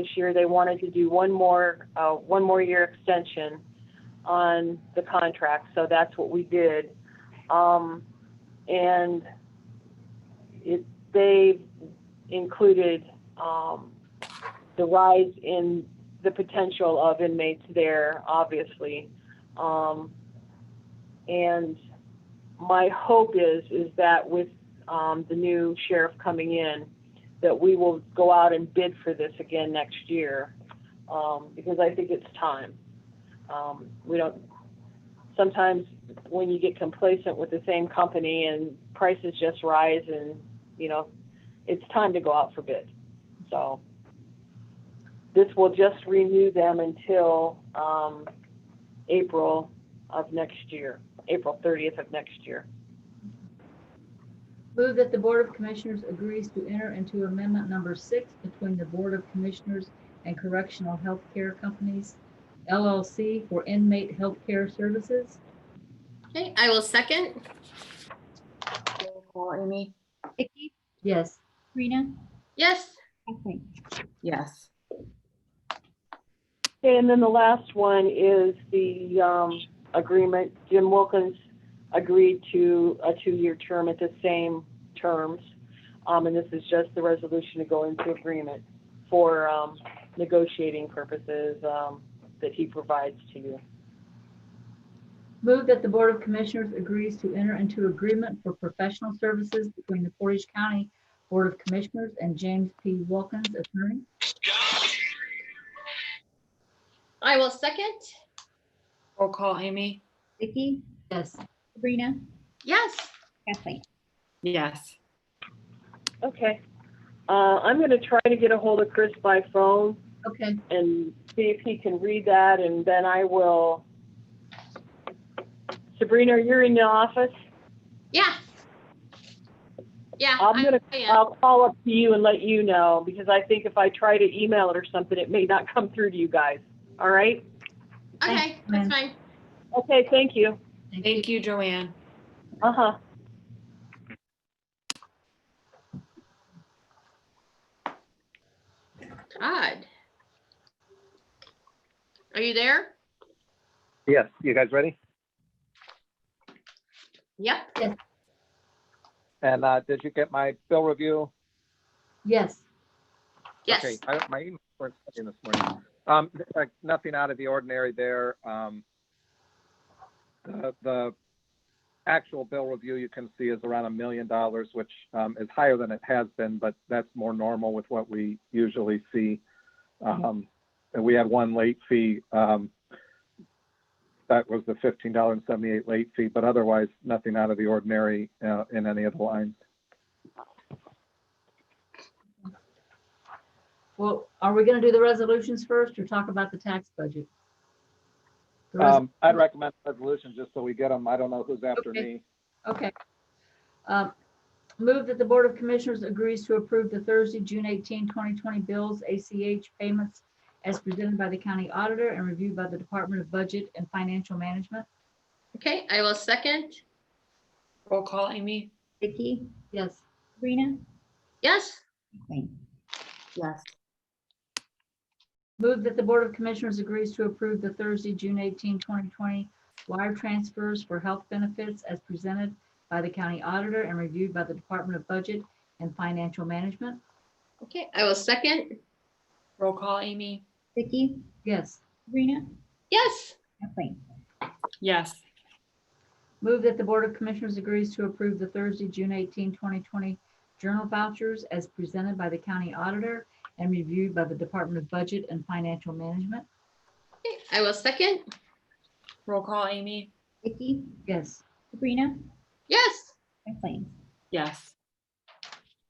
this year, they wanted to do one more, uh, one more year extension on the contract, so that's what we did. Um, and it, they included, um, the rise in the potential of inmates there, obviously. Um, and my hope is, is that with, um, the new sheriff coming in, that we will go out and bid for this again next year, um, because I think it's time. Um, we don't, sometimes when you get complacent with the same company and prices just rise and, you know, it's time to go out for bid. So this will just renew them until, um, April of next year, April thirtieth of next year. Move that the Board of Commissioners agrees to enter into amendment number six between the Board of Commissioners and Correctional Health Care Companies LLC for inmate health care services. Okay, I will second. Roll call, Amy? Vicky, Yes. Sabrina, Yes, Kathleen. Yes. Okay, and then the last one is the um, agreement. Jim Wilkins agreed to a two-year term at the same terms. Um, And this is just the resolution to go into agreement for um, negotiating purposes um, that he provides to you. Move that the Board of Commissioners agrees to enter into agreement for professional services between the Portage County Board of Commissioners and James P. Wilkins, attorney. I will second. Roll call, Amy? Vicky, Yes. Sabrina, Yes, Kathleen. Yes. Okay. Uh, I'm going to try to get a hold of Chris by phone Okay, and see if he can read that, and then I will. Sabrina, you're in the office? yeah. Yeah. I'm I- gonna, I am. I'll call up to you and let you know, because I think if I try to email it or something, it may not come through to you guys. All right? Okay, that's fine. Okay, thank you. Thank you, Joanne. Uh-huh. Todd. Are you there? Yes, you guys ready? Yep. And uh, did you get my bill review? yes. Okay, Yes. I- My email was in this morning. Um, like, Nothing out of the ordinary there. Um, The the actual bill review you can see is around a million dollars, which um, is higher than it has been, but that's more normal with what we usually see. Um, And we had one late fee. um, That was the $15.78 late fee, but otherwise, nothing out of the ordinary uh, in any of the lines. Well, are we going to do the resolutions first or talk about the tax budget? The res- Um, I'd recommend resolutions just so we get them. I don't know who's after Okay. me. Okay. Um, Move that the Board of Commissioners agrees to approve the Thursday, June 18, 2020 bills, ACH payments as presented by the county auditor and reviewed by the Department of Budget and Financial Management. Okay, I will second. Roll call, Amy? Vicky, Yes. Sabrina, Yes, Kathleen. Yes. Move that the Board of Commissioners agrees to approve the Thursday, June 18, 2020 wire transfers for health benefits as presented by the county auditor and reviewed by the Department of Budget and Financial Management. okay, I will second. Roll call, Amy? Vicky, Yes. Sabrina, Yes, Kathleen. Yes. Move that the Board of Commissioners agrees to approve the Thursday, June 18, 2020 journal vouchers as presented by the county auditor and reviewed by the Department of Budget and Financial Management. Okay, I will second. Roll call, Amy? Vicky, Yes. Sabrina, Yes, Kathleen. Yes.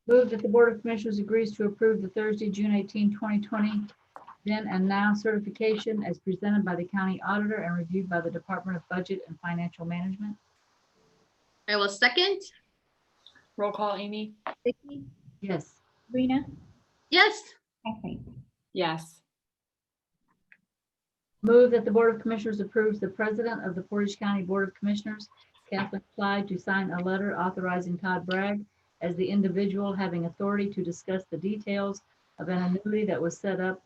Move that the Board of Commissioners agrees to approve the Thursday, June 18, 2020 then and now certification as presented by the county auditor and reviewed by the Department of Budget and Financial Management. I will second. Roll call, Amy? Vicky, Yes. Sabrina, Yes, Kathleen. Yes. Move that the Board of Commissioners approves the President of the Portage County Board of Commissioners, Kathleen Clyde, to sign a letter authorizing Todd Bragg as the individual having authority to discuss the details of an annuity that was set up